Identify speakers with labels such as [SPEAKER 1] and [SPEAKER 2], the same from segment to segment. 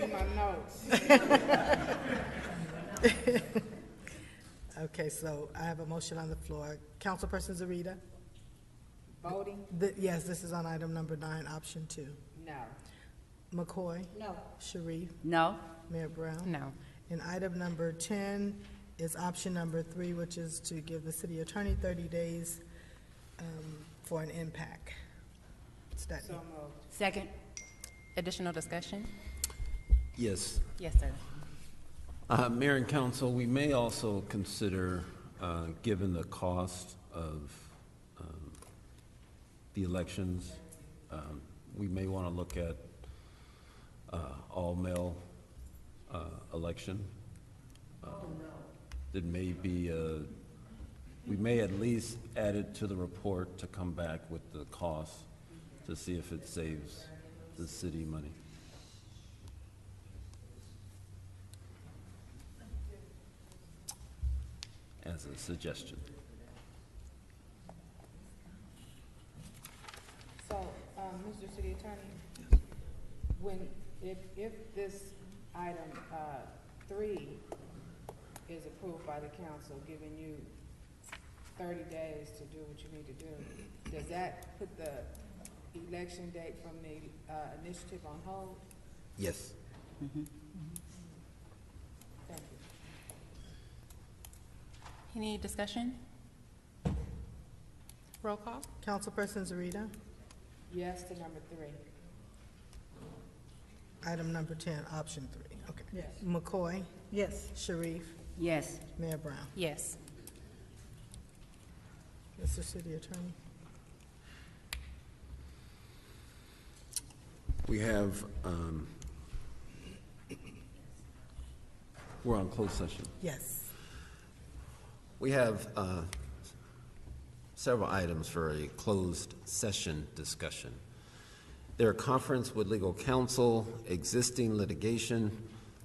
[SPEAKER 1] notes.
[SPEAKER 2] Okay, so I have a motion on the floor. Councilperson Zarita?
[SPEAKER 1] Voting,
[SPEAKER 2] Th- Yes, this is on item number nine, option two.
[SPEAKER 1] no.
[SPEAKER 2] McCoy?
[SPEAKER 1] No.
[SPEAKER 2] Sharif?
[SPEAKER 3] No?
[SPEAKER 2] Mayor Brown?
[SPEAKER 3] No.
[SPEAKER 2] And item number 10 is option number three, which is to give the city attorney 30 days um, for an impact study.
[SPEAKER 1] So moved.
[SPEAKER 3] Second. Additional discussion?
[SPEAKER 4] Yes.
[SPEAKER 3] Yes, sir.
[SPEAKER 4] Uh, Mayor and council, we may also consider, uh, given the cost of um, the elections, um, we may want to look at uh, all-male uh, election. All-male? It may be, uh, we may at least add it to the report to come back with the cost to see if it saves the city money. as a suggestion.
[SPEAKER 1] So, um, Mr. City Attorney, when, if, if this item, uh, three is approved by the council, giving you thirty days to do what you need to do, does that put the election date from the, uh, initiative on hold?
[SPEAKER 4] Yes.
[SPEAKER 1] Thank you.
[SPEAKER 3] Any discussion? Roll call?
[SPEAKER 2] Councilperson Zarita?
[SPEAKER 1] Yes to number three.
[SPEAKER 2] Item number 10, option three, okay.
[SPEAKER 1] Yes.
[SPEAKER 2] McCoy? Yes. Sharif?
[SPEAKER 3] Yes.
[SPEAKER 2] Mayor Brown?
[SPEAKER 3] Yes.
[SPEAKER 2] Mr. City Attorney?
[SPEAKER 4] We have, um, we're on closed session.
[SPEAKER 2] Yes.
[SPEAKER 4] We have uh, several items for a closed session discussion. Their conference with legal counsel, existing litigation.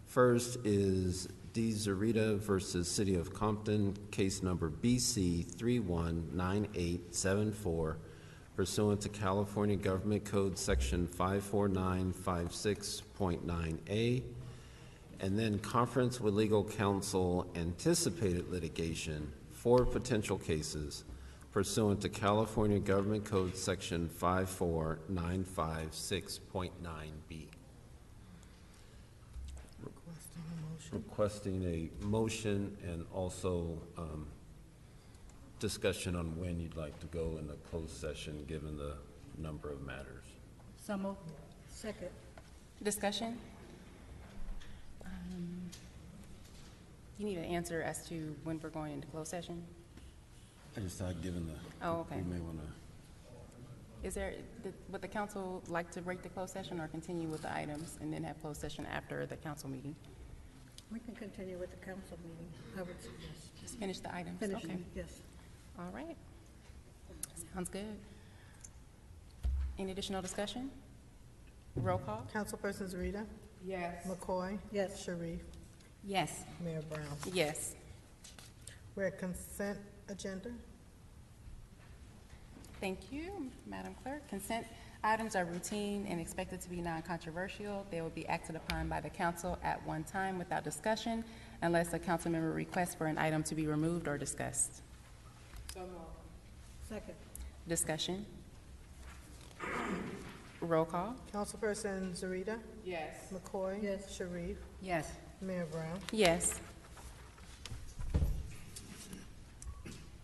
[SPEAKER 4] First is D. Zarita versus City of Compton, case number BC 319874, pursuant to California Government Code Section 54956.9A. And then conference with legal counsel anticipated litigation for potential cases pursuant to California Government Code Section 54956.9B.
[SPEAKER 2] Requesting a motion.
[SPEAKER 4] Requesting a motion and also um, discussion on when you'd like to go in the closed session, given the number of matters.
[SPEAKER 3] So moved.
[SPEAKER 5] Second.
[SPEAKER 3] Discussion? Um, You need an answer as to when we're going into closed session?
[SPEAKER 4] I just thought, given the.
[SPEAKER 3] Oh, okay.
[SPEAKER 4] We may want to,
[SPEAKER 3] Is there, did- would the council like to break the closed session or continue with the items and then have closed session after the council meeting?
[SPEAKER 5] We can continue with the council meeting, I would suggest.
[SPEAKER 3] Just finish the items? Okay.
[SPEAKER 5] Finishing, yes.
[SPEAKER 3] All right. Sounds good. Any additional discussion? Roll call?
[SPEAKER 2] Councilperson Zarita?
[SPEAKER 1] Yes.
[SPEAKER 2] McCoy?
[SPEAKER 5] Yes.
[SPEAKER 2] Sharif?
[SPEAKER 3] Yes.
[SPEAKER 2] Mayor Brown?
[SPEAKER 3] Yes.
[SPEAKER 2] We're at consent agenda?
[SPEAKER 3] Thank you, Madam Clerk. Consent items are routine and expected to be non-controversial. They will be acted upon by the council at one time without discussion unless a council member requests for an item to be removed or discussed.
[SPEAKER 1] So moved.
[SPEAKER 5] Second.
[SPEAKER 3] Discussion? Roll call?
[SPEAKER 2] Councilperson Zarita?
[SPEAKER 1] Yes.
[SPEAKER 2] McCoy?
[SPEAKER 5] Yes.
[SPEAKER 2] Sharif?
[SPEAKER 3] Yes.
[SPEAKER 2] Mayor Brown?
[SPEAKER 3] Yes.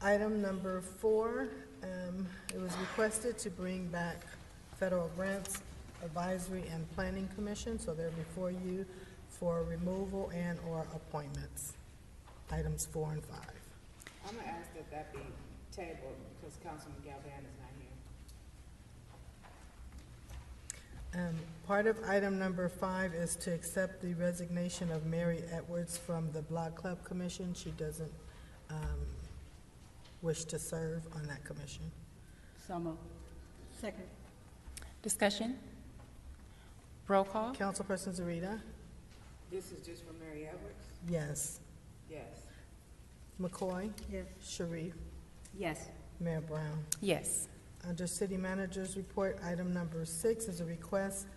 [SPEAKER 2] Item number four, um, it was requested to bring back Federal Grants Advisory and Planning Commission, so they're before you for removal and/or appointments, items four and five.
[SPEAKER 1] I'm gonna ask that that be tabled, because Councilman Galvin is not here.
[SPEAKER 2] Um, Part of item number five is to accept the resignation of Mary Edwards from the Block Club Commission. She doesn't um, wish to serve on that commission.
[SPEAKER 3] So moved.
[SPEAKER 5] Second.
[SPEAKER 3] Discussion? Roll call?
[SPEAKER 2] Councilperson Zarita?
[SPEAKER 1] This is just for Mary Edwards?
[SPEAKER 2] Yes.
[SPEAKER 1] Yes.
[SPEAKER 2] McCoy?
[SPEAKER 5] Yes.
[SPEAKER 2] Sharif?
[SPEAKER 3] Yes.
[SPEAKER 2] Mayor Brown?
[SPEAKER 3] Yes.
[SPEAKER 2] Under City Manager's Report, item number six is a request